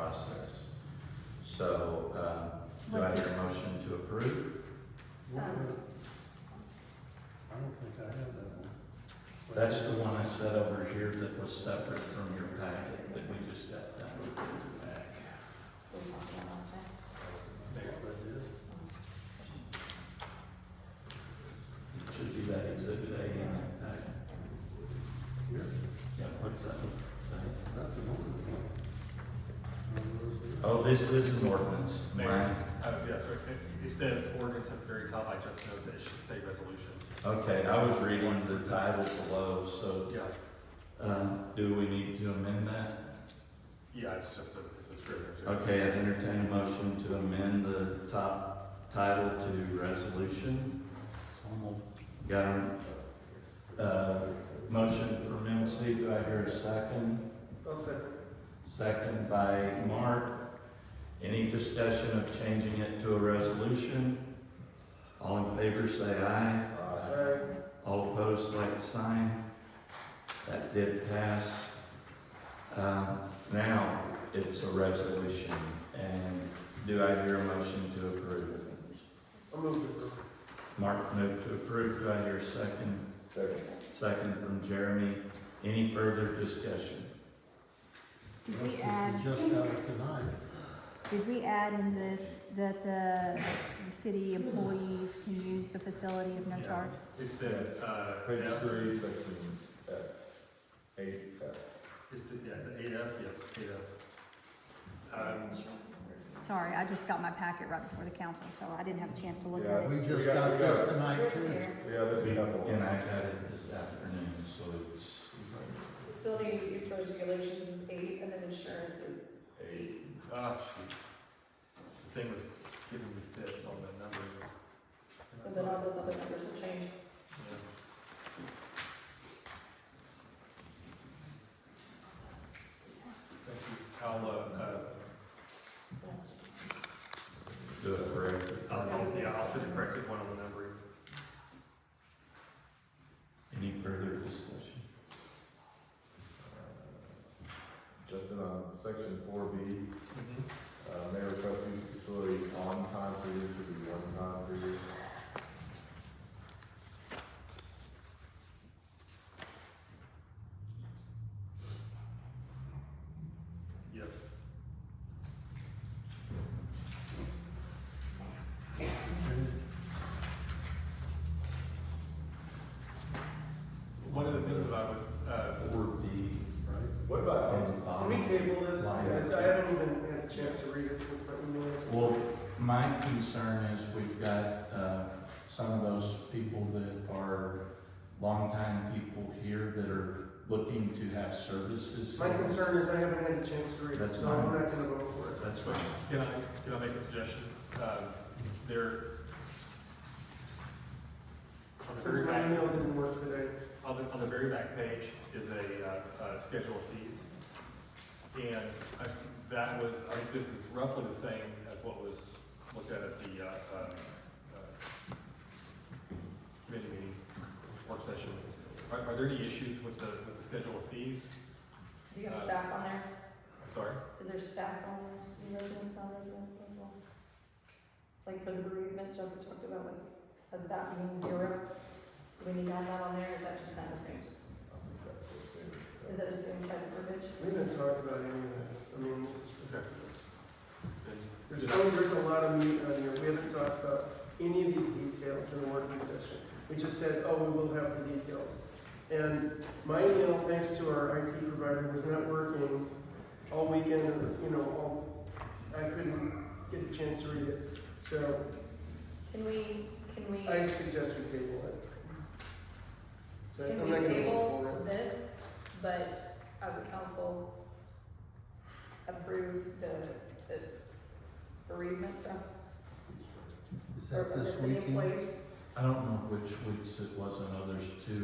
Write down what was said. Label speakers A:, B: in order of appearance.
A: upstairs. So, um, do I hear a motion to approve?
B: Um,
C: I don't think I have that one.
A: That's the one I set over here that was separate from your packet that we just got done with in the back.
B: we talked about last time.
C: That's what I did.
A: It should be that exhibit A in that packet.
C: Here,
A: Yeah, what's that? What's that?
C: that's an order.
A: Oh, this is an ordinance.
D: Mayor, uh, yes, right, it, it says ordinance at the very top, I just noticed it should say resolution.
A: Okay, I was reading the title below, so,
D: Yeah,
A: um, do we need to amend that?
D: yeah, it's just a, it's a scrivener's error.
A: Okay, I entertain a motion to amend the top title to resolution. Got a, uh, motion from MC, do I hear a second?
D: I'll second.
A: Second by Mark. Any discussion of changing it to a resolution? All in favor, say aye.
D: Uh,
A: All opposed, like sign. That did pass. Um, Now, it's a resolution, and do I hear a motion to approve?
C: I'll move it.
A: Mark moved to approve, do I hear a second?
C: Second.
A: Second from Jeremy. Any further discussion?
E: Did we add,
C: Just got it tonight.
E: did we add in this that the, the city employees can use the facility of no
D: Yeah.
E: charge?
D: It says, uh,
F: Page
D: F-
F: three, section F, eight F.
D: it's, yeah, it's eight F, yeah, eight F. Um,
B: Insurance is under-
E: Sorry, I just got my packet right before the council, so I didn't have a chance to look at
F: Yeah.
E: it.
C: We just
F: We got-
C: got
F: we
C: this
F: got-
C: tonight
B: There's
C: too.
B: there.
F: Yeah, there's a couple.
A: And I had it this afternoon, so it's,
B: Facility use regulations is eight, and then insurance is eight.
D: ah, shoot. The thing was giving me fits on the number.
B: So then all those other numbers will change.
D: Yeah. Thank you, I'll, uh, uh,
A: do it correct.
D: I'll, yeah, I'll send a corrected one on the numbering.
A: Any further discussion?
F: Justin, on section four B, uh, may request use of facility on time period to be one time period.
D: Yes. One of the things that I would, uh,
A: Or the,
C: Right?
F: What about, um,
A: on the
G: Can
A: bottom.
G: we table this?
A: Line.
G: Because I haven't even had a chance to read it since my email.
A: Well, my concern is we've got, uh, some of those people that are longtime people here that are looking to have services.
G: My concern is I haven't had a chance to read it,
A: That's
G: so I'm
A: fine.
G: not gonna vote for it.
A: That's right.
D: Can I, can I make a suggestion? Um, There. On the very
G: Since my
D: back,
G: email didn't work today.
D: on the, on the very back page is a, uh, uh, schedule of fees. And I, that was, I think this is roughly the same as what was looked at at the, uh, um, uh, committee meeting, work session. Are, are there any issues with the, with the schedule of fees?
B: Do you have staff on there?
D: I'm sorry.
B: Is there staff on there, Just the residents, non-residents, like, well, Like for the bereavement stuff we talked about, like, does that mean zero? Do we need all that on there, or is that just kind of assumed?
F: I think that's the same.
B: Is that assumed by the verbiage?
G: We haven't talked about any of this. I mean, this is ridiculous.
D: Then-
G: There's so, there's a lot of meat on here. We haven't talked about any of these details in the working session. We just said, oh, we will have the details. And my email, thanks to our IT provider, was not working all weekend, or, you know, all, I couldn't get a chance to read it. So
B: Can we, can we?
G: I suggest we table it. But
B: Can we
G: I'm not gonna vote for
B: table
G: it.
B: this, but as a council, approve the, the bereavement stuff?
C: Is
B: or
C: that this
B: The city
C: weekend?
B: employees,
A: I don't know which weeks it was, I know there's two Uh,